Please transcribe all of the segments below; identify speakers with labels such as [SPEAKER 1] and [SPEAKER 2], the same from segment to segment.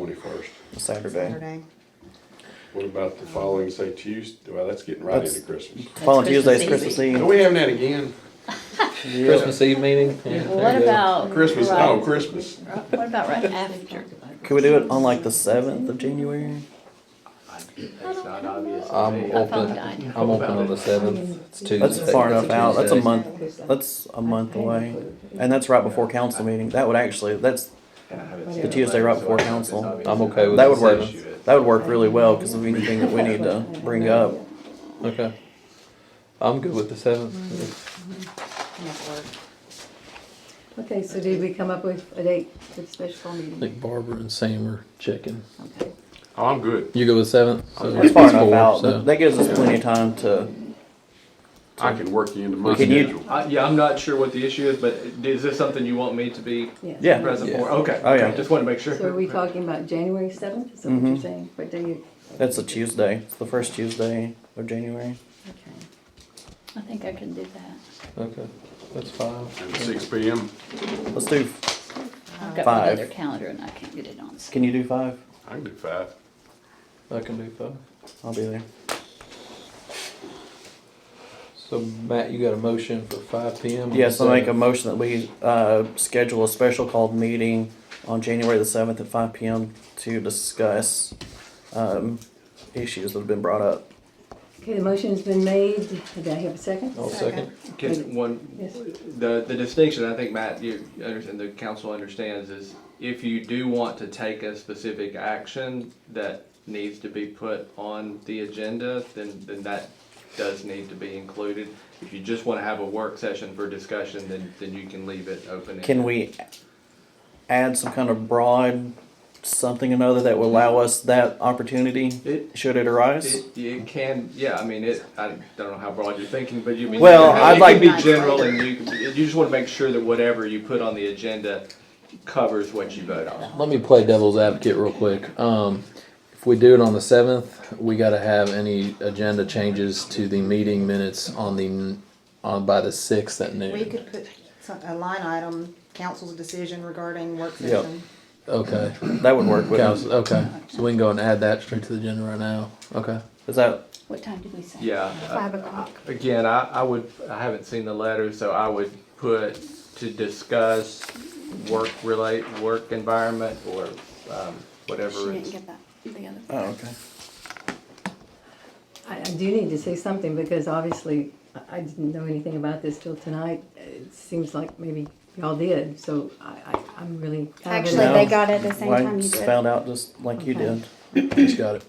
[SPEAKER 1] Twenty-first.
[SPEAKER 2] Saturday.
[SPEAKER 3] Saturday.
[SPEAKER 1] What about the following, say Tuesday? Well, that's getting right
[SPEAKER 2] That's-
[SPEAKER 1] into Christmas.
[SPEAKER 2] Following Tuesday is
[SPEAKER 3] Christmas
[SPEAKER 2] Christmas
[SPEAKER 1] Are
[SPEAKER 2] Eve.
[SPEAKER 1] we having that again?
[SPEAKER 2] Yeah.
[SPEAKER 4] Christmas Eve meeting?
[SPEAKER 5] Well, what about?
[SPEAKER 1] Christmas,
[SPEAKER 5] right-
[SPEAKER 1] oh, Christmas.
[SPEAKER 5] What about right after?
[SPEAKER 2] Could we do it on like the seventh of January?
[SPEAKER 6] That's not obvious.
[SPEAKER 4] I'm open,
[SPEAKER 5] died.
[SPEAKER 4] I'm open on the seventh, it's Tuesday.
[SPEAKER 2] That's far enough out. That's a
[SPEAKER 4] Tuesday.
[SPEAKER 2] month. That's a month away, and that's right before council meeting. That would actually that's the Tuesday right before council.
[SPEAKER 4] I'm okay with
[SPEAKER 2] that.
[SPEAKER 4] the
[SPEAKER 2] Would work.
[SPEAKER 4] seventh.
[SPEAKER 2] That would work really well because of anything that we need to bring up.
[SPEAKER 4] Okay. I'm good with the seventh.
[SPEAKER 5] Okay, so did we come up with a date for the special meeting?
[SPEAKER 4] Barbara and Sam are checking.
[SPEAKER 5] Okay.
[SPEAKER 1] Oh, I'm good.
[SPEAKER 4] You go with seventh?
[SPEAKER 2] It's far enough out. That- That gives us plenty of time to.
[SPEAKER 1] I can work you into my
[SPEAKER 2] Can you-
[SPEAKER 1] schedule.
[SPEAKER 6] I, yeah, I'm not sure what the issue is, but is this something you want me to be
[SPEAKER 2] Yeah.
[SPEAKER 6] present
[SPEAKER 4] Yeah.
[SPEAKER 6] for? Okay.
[SPEAKER 2] Oh, yeah.
[SPEAKER 6] okay, Just want to make sure.
[SPEAKER 5] So are we talking about January seventh, is that what you're
[SPEAKER 2] Mhm.
[SPEAKER 5] saying? What day you,
[SPEAKER 2] That's a Tuesday. It's the first Tuesday of January.
[SPEAKER 5] okay.
[SPEAKER 7] I think I can do that.
[SPEAKER 4] Okay, that's fine.
[SPEAKER 1] And Six P M.
[SPEAKER 2] Let's do.
[SPEAKER 7] I've
[SPEAKER 2] Five.
[SPEAKER 7] got one other calendar and I can't get it on. so-
[SPEAKER 2] Can you do five?
[SPEAKER 1] I can do five.
[SPEAKER 4] I can do five.
[SPEAKER 2] I'll be there.
[SPEAKER 4] So Matt, you got a motion for five P M?
[SPEAKER 2] Yes, I make a motion that we uh, schedule a special called meeting on January the seventh at five PM to discuss um, issues that have been brought up.
[SPEAKER 5] Okay, the motion's been made, did I have a second?
[SPEAKER 4] I'll second.
[SPEAKER 6] Can one,
[SPEAKER 5] Yes.
[SPEAKER 6] the, the distinction, I think, Matt, you understand, the council understands is if you do want to take a specific action that needs to be put on the agenda, then, then that does need to be included. If you just want to have a work session for discussion, then, then you can leave it open.
[SPEAKER 2] Can we add some kind of broad something or another that will allow us that opportunity,
[SPEAKER 6] It,
[SPEAKER 2] should it arise?
[SPEAKER 6] it, it can, yeah, I mean, it, I don't know how broad you're thinking, but you mean.
[SPEAKER 2] Well,
[SPEAKER 6] it
[SPEAKER 2] I'd
[SPEAKER 6] can
[SPEAKER 2] like-
[SPEAKER 6] be general and you, you just want to make sure that whatever you put on the agenda covers what you vote on.
[SPEAKER 4] Let me play devil's advocate real quick. Um, if we do it on the seventh, we gotta have any agenda changes to the meeting minutes on the, on by the sixth at
[SPEAKER 3] We
[SPEAKER 4] noon.
[SPEAKER 3] could put some- a line item, council's decision regarding work
[SPEAKER 2] Yep.
[SPEAKER 3] session.
[SPEAKER 4] Okay,
[SPEAKER 2] That would work with us.
[SPEAKER 4] Council- okay, so we can go and add that straight to the agenda right now, okay?
[SPEAKER 2] Is that,
[SPEAKER 7] What time did we say?
[SPEAKER 6] Yeah. uh,
[SPEAKER 5] Five o'clock.
[SPEAKER 6] Again, I, I would, I haven't seen the letter, so I would put to discuss work relate, work environment or, um,
[SPEAKER 7] She
[SPEAKER 6] whatever.
[SPEAKER 7] didn't
[SPEAKER 6] it's-
[SPEAKER 7] get that, the other.
[SPEAKER 2] oh, okay.
[SPEAKER 5] I, I do need to say something because obviously I, I didn't know anything about this till tonight. It seems like maybe y'all did, so I, I, I'm really. kind of in
[SPEAKER 8] Actually,
[SPEAKER 5] the-
[SPEAKER 8] they got it the same
[SPEAKER 2] Well, I
[SPEAKER 8] time you did.
[SPEAKER 2] Found out just like you
[SPEAKER 5] Okay.
[SPEAKER 2] did. Just got it.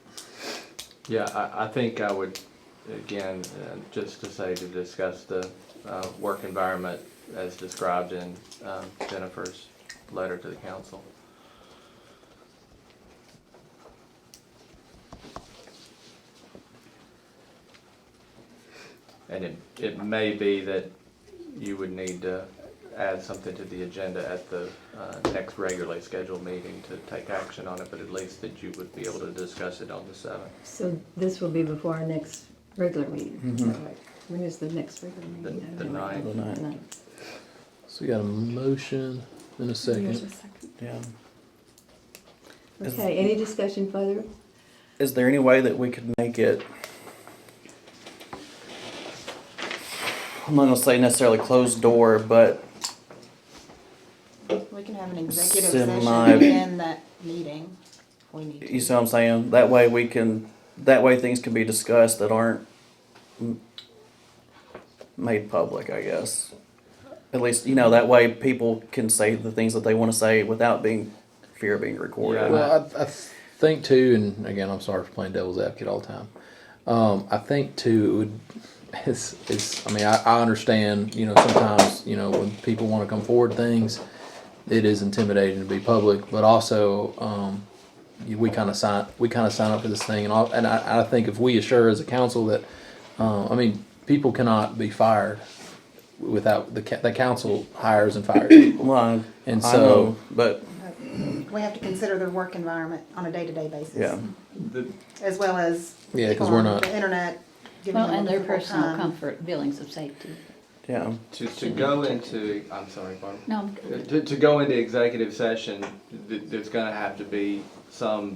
[SPEAKER 6] Yeah, I, I think I would, again, uh, just to say to discuss the, uh, work environment as described in, um, Jennifer's letter to the council. And it, it may be that you would need to add something to the agenda at the uh, next regularly scheduled meeting to take action on it, but at least that you would be able to discuss it on the seventh.
[SPEAKER 5] So this will be before our next regular meeting.
[SPEAKER 2] Mhm.
[SPEAKER 5] Right. When is the next regular meeting?
[SPEAKER 6] The- the ninth.
[SPEAKER 2] The ninth.
[SPEAKER 4] So we got a motion in a
[SPEAKER 7] Here's a
[SPEAKER 4] second.
[SPEAKER 7] second.
[SPEAKER 2] Yeah.
[SPEAKER 5] Okay, any discussion further?
[SPEAKER 2] Is there any way that we could make it? I'm not gonna say necessarily closed door, but
[SPEAKER 3] We can have an executive session
[SPEAKER 2] Semi-
[SPEAKER 3] in that meeting. if We need
[SPEAKER 2] you
[SPEAKER 3] to.
[SPEAKER 2] see what I'm saying? That way we can, that way things can be discussed that aren't m- made public, I guess. At least, you know, that way people can say the things that they wanna say without being, fear of being recorded.
[SPEAKER 6] Yeah.
[SPEAKER 4] Well, I, I think too, and again, I'm sorry for playing devil's advocate all the time. Um, I think too, it would, it's, it's, I mean, I, I understand, you know, sometimes, you know, when people want to come forward with things, it is intimidating to be public, but also, um, you- we kind of sign, we kind of sign up for this thing and all, and I, I think if we assure as a council that, uh, I mean, people cannot be fired without the, ca- the council hires and fires people.
[SPEAKER 2] Well, I-
[SPEAKER 4] And
[SPEAKER 2] I
[SPEAKER 4] so-
[SPEAKER 2] know, but,
[SPEAKER 3] We have to consider their work environment on a day-to-day basis.
[SPEAKER 2] yeah,
[SPEAKER 6] The,
[SPEAKER 3] As well as.
[SPEAKER 4] Yeah, 'cause
[SPEAKER 3] on
[SPEAKER 4] we're not-
[SPEAKER 3] The internet. giving
[SPEAKER 7] Well,
[SPEAKER 3] them a
[SPEAKER 7] and their
[SPEAKER 3] difficult
[SPEAKER 7] personal
[SPEAKER 3] time.
[SPEAKER 7] comfort, feelings of safety.
[SPEAKER 2] yeah.
[SPEAKER 6] To, to go into, I'm sorry, Barbara.
[SPEAKER 7] No, I'm good.
[SPEAKER 6] To, to go into executive session, th- there's gonna have to be some